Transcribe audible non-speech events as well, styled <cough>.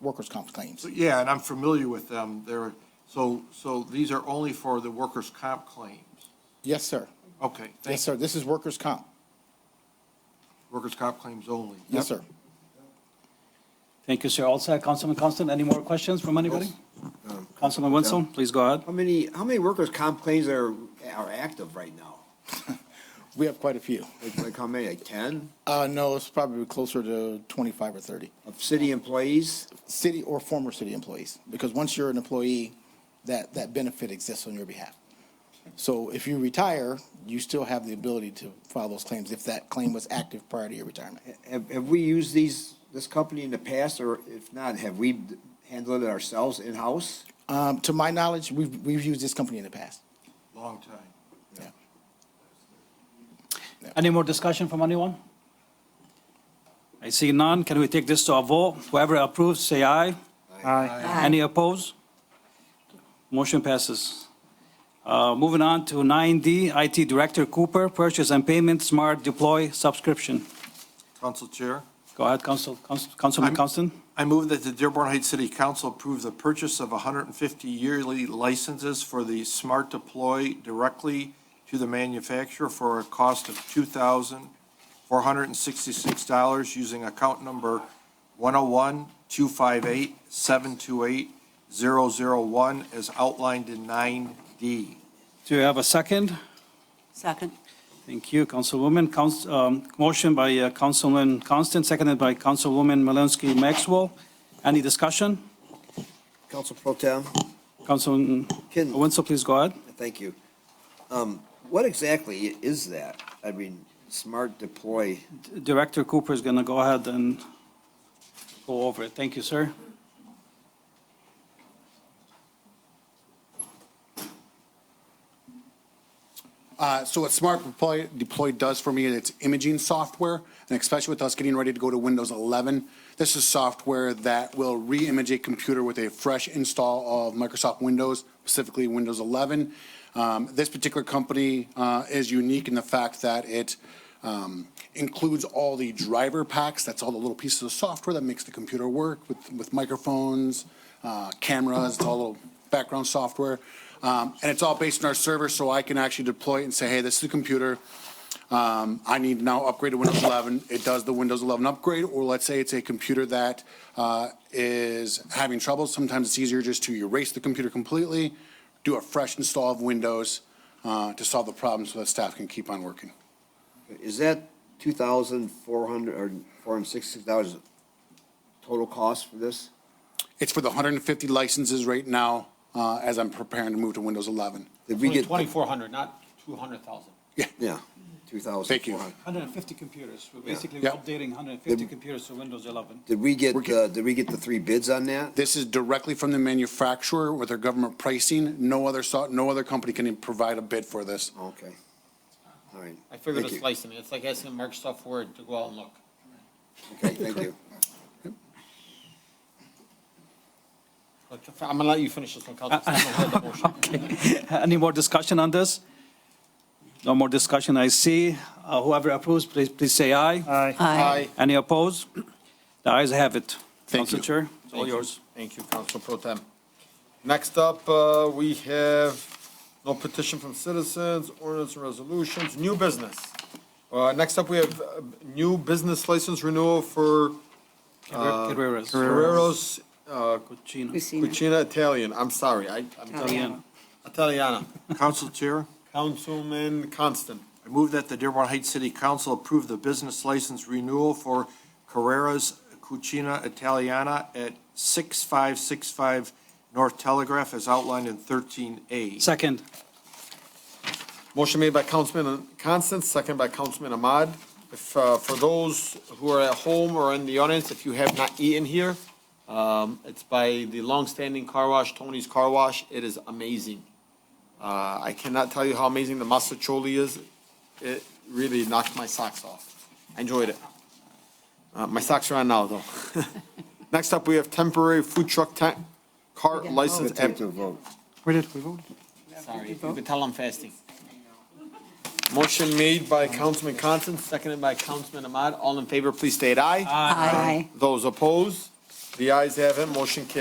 workers' comp claims. Yeah, and I'm familiar with them. They're, so, so these are only for the workers' comp claims. Yes, sir. Okay, Yes, thank you. sir. This is workers' comp. Workers' comp claims only. Yes, sir. Thank you, sir. Also, Councilman Constant, any more questions from anybody? Councilman Wenzel, please go ahead. How many, how many workers' comp claims are, are active right now? We have quite a few. Like, like how many, like ten Uh, no, it's probably closer to twenty-five or thirty. of city employees? City or former city employees, because once you're an employee, that, that benefit exists on your behalf. So if you retire, you still have the ability to file those claims if that claim was active prior to your retirement. Have, have we used these, this company in the past, or if not, have we handled it ourselves in-house? Um, to my knowledge, we've, we've used this company in the past. Long time. Yeah. Any more discussion from anyone? I see none. Can we take this to a vote? Whoever approves, say aye. Aye. Any opposed? Motion passes. Uh, Moving on to 9D, IT Director Cooper, Purchase and Payment Smart Deploy Subscription. Council Chair, Go ahead, Council, Council- Councilman I'm- Constant. I move that the Dearborn Heights City Council approve the purchase of 150 yearly licenses for the Smart Deploy directly to the manufacturer for a cost of $2,466 using account number 101-258-728-001 as outlined in 9D. Do you have a second? Second. Thank you, Councilwoman. Couns- um, Motion by uh, Councilman Constant, seconded by Councilwoman Malinsky Maxwell. Any discussion? Council Pro Tem? Councilman Kin- Wenzel, please go ahead. Thank you. Um, what exactly is that? I mean, smart deploy, Director Cooper is going to go ahead and go over it. Thank you, sir. Uh, so what Smart Deploy, Deploy does for me is it's imaging software, and especially with us getting ready to go to Windows 11, this is software that will re-image a computer with a fresh install of Microsoft Windows, specifically Windows 11. Um, this particular company uh, is unique in the fact that it um, includes all the driver packs. That's all the little pieces of software that makes the computer work with, with microphones, uh, cameras, it's all little background software. Um, and it's all based on our server, so I can actually deploy it and say, hey, this is the computer. Um, I need now upgrade to Windows 11. It does the Windows 11 upgrade, or let's say it's a computer that uh, is having trouble. Sometimes it's easier just to erase the computer completely, do a fresh install of Windows uh, to solve the problem so that staff can keep on working. is that two thousand four hundred, or four hundred and sixty dollars total cost for this? It's for the 150 licenses right now uh, as I'm preparing to move to Windows 11. Did we get? Twenty-four hundred, not two hundred thousand. Yeah, two thousand Thank four you. hundred. 150 computers. We're basically Yeah. updating 150 computers to Windows 11. Did we get, We're get- uh, did we get the three bids on that? This is directly from the manufacturer with their government pricing. No other, so- no other company can even provide a bid for this. Okay. All right. I figured Thank it's licensing. It's like asking Microsoft Word to go out and look. you. Okay, thank you. But I'm gonna let you finish this one, Councilman. I'm gonna hold the motion. <laughs> Any more discussion on this? No more discussion, I see. Uh, Whoever approves, please, please say aye. Aye. Any opposed? The ayes have it. Thank Council you. Chair, it's all Thank you. yours. Thank you, Council Pro Tem. Next up, uh, we have no petition from citizens, ordinance and resolutions, new business. Uh, Next up, we have uh, new business license renewal for Uh, Carreras. Carreros uh, Cucina. Cucina Italian. I'm sorry, I, I'm Italian. Italiana. Council Chair? Councilman Constant. I move that the Dearborn Heights City Council approve the business license renewal for Carrera's Cucina Italiana at 6565 North Telegraph as outlined in 13A. Second. Motion made by Councilman Constance, second by Councilman Ahmad. If, uh, for those who are at home or in the audience, if you have not eaten here, um, it's by the longstanding car wash, Tony's Car Wash. It is amazing. Uh, I cannot tell you how amazing the masticholi is. It really knocked my socks off. I enjoyed it. Uh, my socks are on now, though. <laughs> Next up, we have temporary food truck tent car I'll license. take to a vote. Sorry, you can tell I'm fasting. Motion made by Councilman Constant, seconded by Councilman Ahmad. All in favor, please state aye. Aye. Those opposed? The ayes have it, motion carries.